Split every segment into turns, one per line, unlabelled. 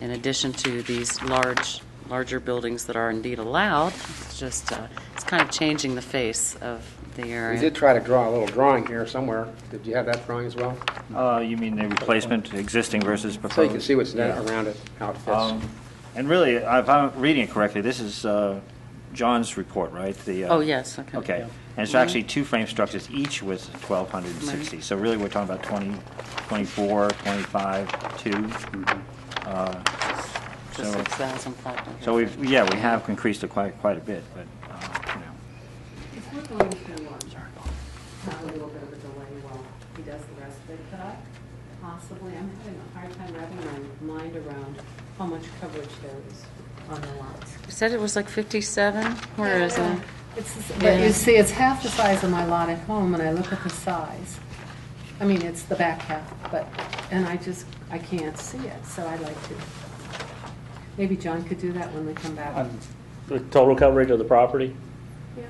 in addition to these large, larger buildings that are indeed allowed, it's just, uh, it's kind of changing the face of the area.
We did try to draw a little drawing here somewhere. Did you have that drawing as well?
Uh, You mean the replacement, existing versus proposed?
So you can see what's there around it, how it fits.
Um, And really, if I'm reading it correctly, this is uh, John's report, right? The, uh,
Oh, yes, okay.
Okay, and it's actually two frame structures, each with 1,260. So really, we're talking about 20, 24, 25, 2.
Mm-hmm.
Uh,
To
so-
6,500.
So we've, yeah, we have increased it quite, quite a bit, but, uh, you know.
If we're going to um, have a little bit of a delay while he does the rest of it, could I possibly, I'm having a hard time wrapping my mind around how much coverage there is on the lots.
You said it was like 57? Where is
Yeah.
it?
It's the s-
Yeah.
But you see, it's half the size of my lot at home, and I look at the size. I mean, it's the back half, but, and I just, I can't see it, so I'd like to. Maybe John could do that when we come back.
On The total coverage of the property,
Yeah,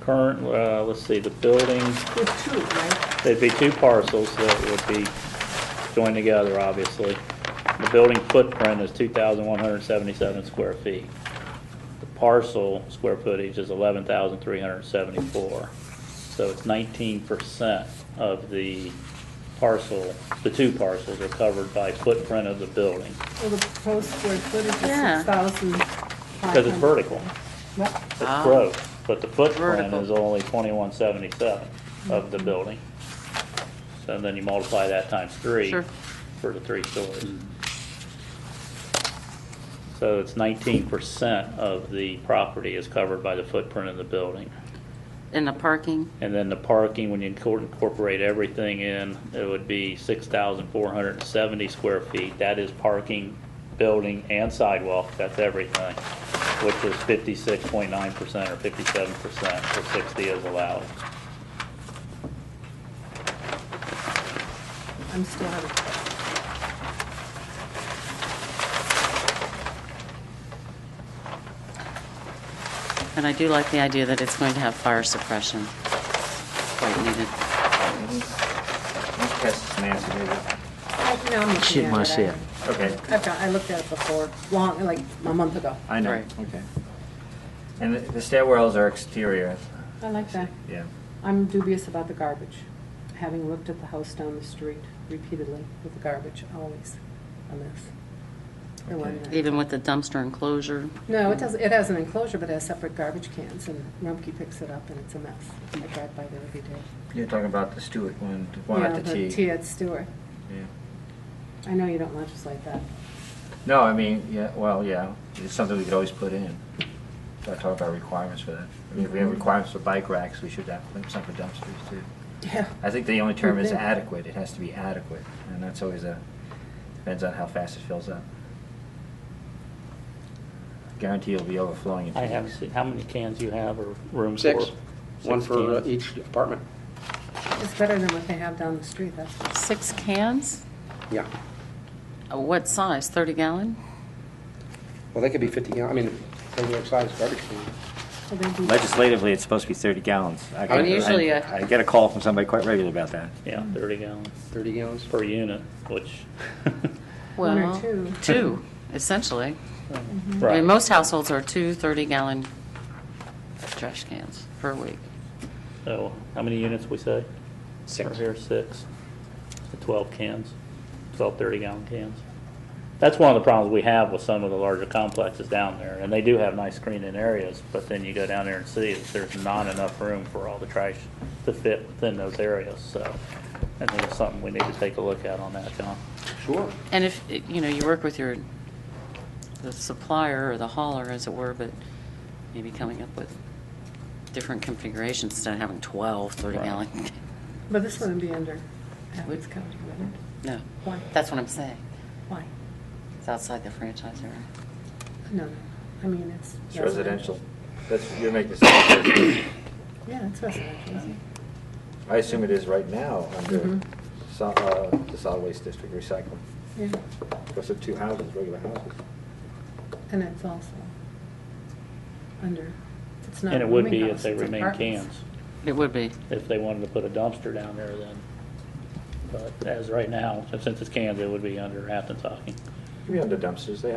current, uh, let's see, the building,
with two, right?
there'd be two parcels that would be joined together, obviously. The building footprint is 2,177 square feet. The parcel square footage is 11,374. So it's 19% of the parcel, the two parcels are covered by footprint of the building,
Well, the proposed square footage is
Yeah.
6,500.
because it's vertical.
Yep.
Ah.
It's gross, but the footprint
Vertical. Mm-hmm.
is only twenty-one seventy-seven of the building. So then you multiply that times three
Sure.
for the three stories. So it's nineteen percent of the property is covered by the footprint of the building.
In the parking?
And then the parking, when you incor- incorporate everything in, it would be six thousand four hundred and seventy square feet. That is parking, building, and sidewalk, that's everything, which is fifty-six point nine percent or fifty-seven percent, or sixty is allowed.
I'm still having
And I do like the idea that it's going to have fire suppression. Quite needed.
Let's pass this to Nancy, maybe.
I- No, I'm looking
She didn't
at
wanna see
I-
it. Okay.
I've got, I looked at it before, long, like a month ago.
I know,
Right.
okay. And the the stairwells are exterior.
I like that.
Yeah.
I'm dubious about the garbage, having looked at the house down the street repeatedly with the garbage, always a mess. The one that-
Even with the dumpster enclosure?
No, it doesn't, it has an enclosure, but it has separate garbage cans, and Rumpke picks it up, and it's a mess. I drive by there every day.
You're talking about the Stewart one, the one
Yeah,
at the T.
Tea at Stewart.
Yeah.
I know you don't legislate that.
No, I mean, yeah, well, yeah, it's something we could always put in. Gotta talk about requirements for that. I mean, if we have requirements for bike racks, we should have some for dumpsters too.
Yeah.
I think the only term is
Okay.
adequate, it has to be adequate, and that's always a, depends on how fast it fills up. Guarantee it'll be overflowing in two
I haven't
weeks.
seen, how many cans you have or room for?
Six, one
Six
for uh,
cans.
each apartment.
It's better than what they have down the street, that's for
Six cans?
Yeah.
Uh, What size? 30 gallon?
Well, they could be 50 gallon, I mean, regular size garbage can.
Well, they do-
Legislatively, it's supposed to be 30 gallons. I
I mean,
get- I-
usually, uh,
I get a call from somebody quite regularly about that.
Yeah, 30 gallons
30 gallons.
per unit, which.
One or
Well,
two.
Two, essentially. I
Right.
mean, most households are two 30-gallon trash cans per week.
So, how many units we say?
Six.
Or here, six. So Twelve cans, twelve thirty-gallon cans. That's one of the problems we have with some of the larger complexes down there, and they do have nice screening areas, but then you go down there and see that there's not enough room for all the trash to fit within those areas, so. I think it's something we need to take a look at on that, John.
Sure.
And if, you know, you work with your, the supplier or the hauler, as it were, but maybe coming up with different configurations instead of having 12
Right.
30-gallon.
But this wouldn't be under Athens County, would it?
No,
Why?
that's what I'm saying.
Why?
It's outside the franchise area.
No, no, I mean, it's.
It's residential. That's, you're making this,
Yeah, it's residential, isn't it?
I assume it is right now under
Mhm.
so- uh, the solid waste district recycling.
Yeah,
Because of two houses, regular houses.
and it's also under, it's not.
And it would
rooming
be if
house,
they
it's
remain
apartments.
cans,
It would be.
if they wanted to put a dumpster down there then. But as right now, since it's cans, it would be under Athens hockey.
Could be under dumpsters, they